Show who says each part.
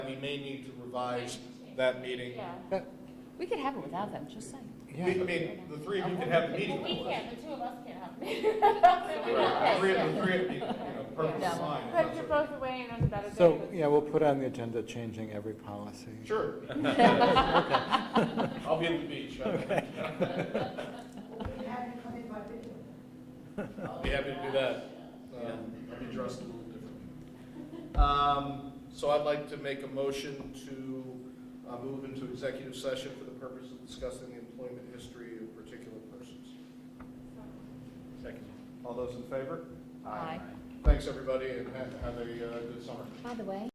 Speaker 1: we may need to revise that meeting.
Speaker 2: Yeah.
Speaker 3: That-
Speaker 2: We could have it without them, just saying.
Speaker 1: We-
Speaker 3: Yeah.
Speaker 1: I mean, the three of you can have the meeting.
Speaker 4: Well, we
Speaker 1: with us.
Speaker 4: can't, the two of us can't have a
Speaker 1: Right, the three,
Speaker 4: meeting.
Speaker 1: of- the three, of you, you know, perfectly
Speaker 2: Yeah.
Speaker 1: fine.
Speaker 5: But
Speaker 1: That's
Speaker 5: you're
Speaker 1: okay.
Speaker 5: both away and on about a
Speaker 3: So,
Speaker 5: day.
Speaker 3: yeah, we'll put on the agenda changing every policy.
Speaker 1: Sure. I'll be at the beach. I'll be happy to do that. Um, I'll be dressed a little differently. Um, So I'd like to make a motion to uh, move into executive session for the purpose of discussing the employment history of particular persons.
Speaker 6: Second.
Speaker 1: All those in favor?
Speaker 2: Aye.
Speaker 1: Thanks, everybody, and ha- have a uh, good summer.
Speaker 2: By the way,